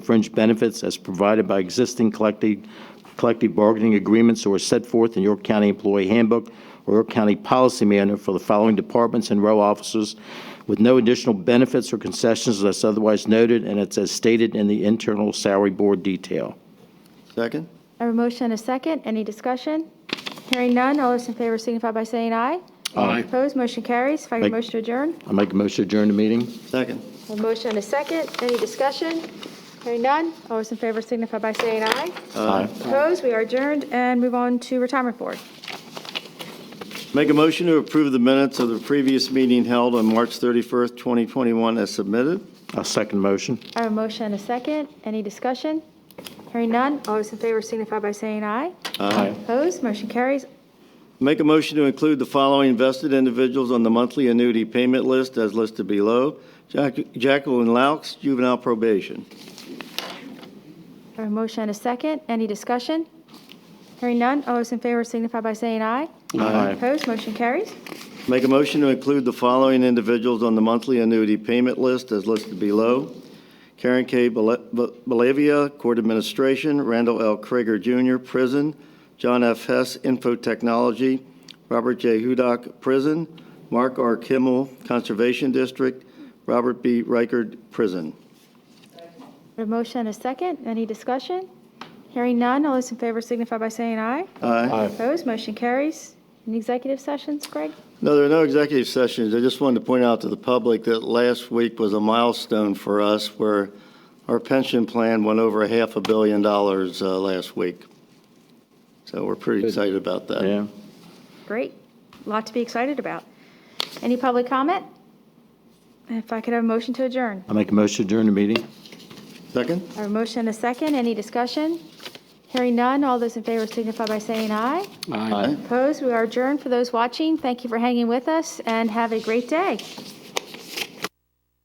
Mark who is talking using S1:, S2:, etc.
S1: fringe benefits as provided by existing collective, collective bargaining agreements or set forth in York County Employee Handbook or York County Policy Manual for the following departments and row officers with no additional benefits or concessions unless otherwise noted, and it's as stated in the internal salary board detail.
S2: Second?
S3: I have a motion and a second. Any discussion? Hearing none, all those in favor signify by saying aye.
S1: Aye.
S3: Opposed, motion carries. If I
S1: Thank-
S3: could motion to adjourn.
S1: I make a motion to adjourn the meeting.
S2: Second.
S3: A motion and a second. Any discussion? Hearing none, all those in favor signify by saying aye.
S1: Aye.
S3: Opposed, we are adjourned and move on to retirement board.
S2: Make a motion to approve the minutes of the previous meeting held on March 31st, 2021 as submitted.
S1: I'll second the motion.
S3: I have a motion and a second. Any discussion? Hearing none, all those in favor signify by saying aye.
S1: Aye.
S3: Opposed, motion carries.
S2: Make a motion to include the following vested individuals on the monthly annuity payment list as listed below. Jack- Jacqueline Laux, juvenile probation.
S3: I have a motion and a second. Any discussion? Hearing none, all those in favor signify by saying aye.
S1: Aye.
S3: Opposed, motion carries.
S2: Make a motion to include the following individuals on the monthly annuity payment list as listed below. Karen K. Bele- Be- Bellavia, Court Administration, Randall L. Krieger Jr., Prison, John F. Hess, Info Technology, Robert J. Hudak, Prison, Mark R. Kimmel, Conservation District, Robert B. Reichard, Prison.
S3: A motion and a second. Any discussion? Hearing none, all those in favor signify by saying aye.
S2: Aye.
S3: Opposed, motion carries. Any executive sessions, Greg?
S2: No, there are no executive sessions. I just wanted to point out to the public that last week was a milestone for us where our pension plan went over a half a billion dollars uh, last week. So we're pretty excited about that.
S1: Yeah.
S3: Great. Lot to be excited about. Any public comment? If I could have a motion to adjourn.
S1: I make a motion to adjourn the meeting.
S2: Second?
S3: A motion and a second. Any discussion? Hearing none, all those in favor signify by saying aye.
S1: Aye.
S3: Opposed, we are adjourned. For those watching, thank you for hanging with us and have a great day.